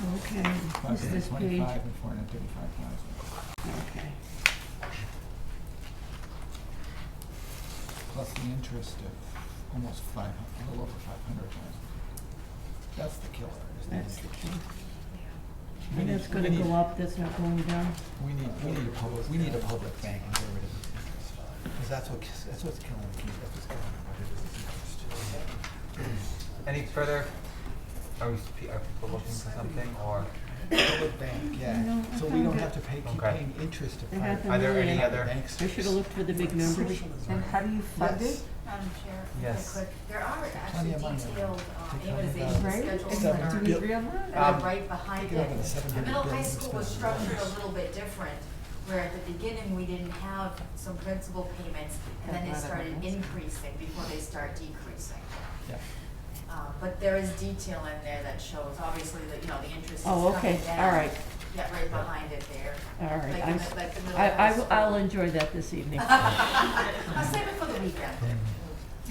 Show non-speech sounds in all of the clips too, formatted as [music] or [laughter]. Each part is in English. Okay, what's this page? 525 and 435,000, Okay, plus the interest of almost 500, a little over 500,000. That's the killer, is the that's the interest. key. We And need- that's gonna we need- go up, that's not going down? We need, we need a public, we need a public bank and get rid of this interest. Because that's what, kills- that's what's killing the, that's what's killing the budget is this interest. Any further, are we, spe- are people looking for something, or Public bank, No, yeah. I So we found don't it. have to pay, keep Okay. paying interest to It private happened are there any Yeah. other? banks. I should've looked for the big numbers. And how do you fund Yes. it? Madam Chair, really Yes. quick, there are Plenty actually of money. detailed uh, Take out about amortization Right? schedules And Seven that do we are, billion. agree on that? that Um, are right behind Take it it. over to seven The hundred middle high billion school was expenses. structured a little bit different, where at the beginning, we didn't have some principal payments, and then they That's not a started balance. increasing before they start decreasing. Yeah. Uh, But there is detail in there that shows, obviously, that, you know, the interest is Oh, okay, coming down. all right, Yeah, right behind it there. all right. Like I'm the s- mi- like the middle I, I high will- I'll school. enjoy that this evening. [laughs] I'll save it for the weekend.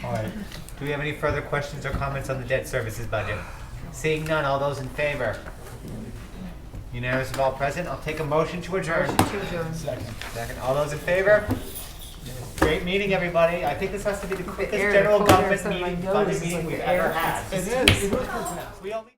All right. Do we have any further questions or comments on the debt services budget? Seeing none, all those in favor? Unanimous of all present, I'll take a motion to adjourn. Second. Second, all those in favor? Great meeting, everybody. I think this has to be the quickest air, the general cold air government from my meeting, nose budget is meeting like we've the air. ever had. It is. We only.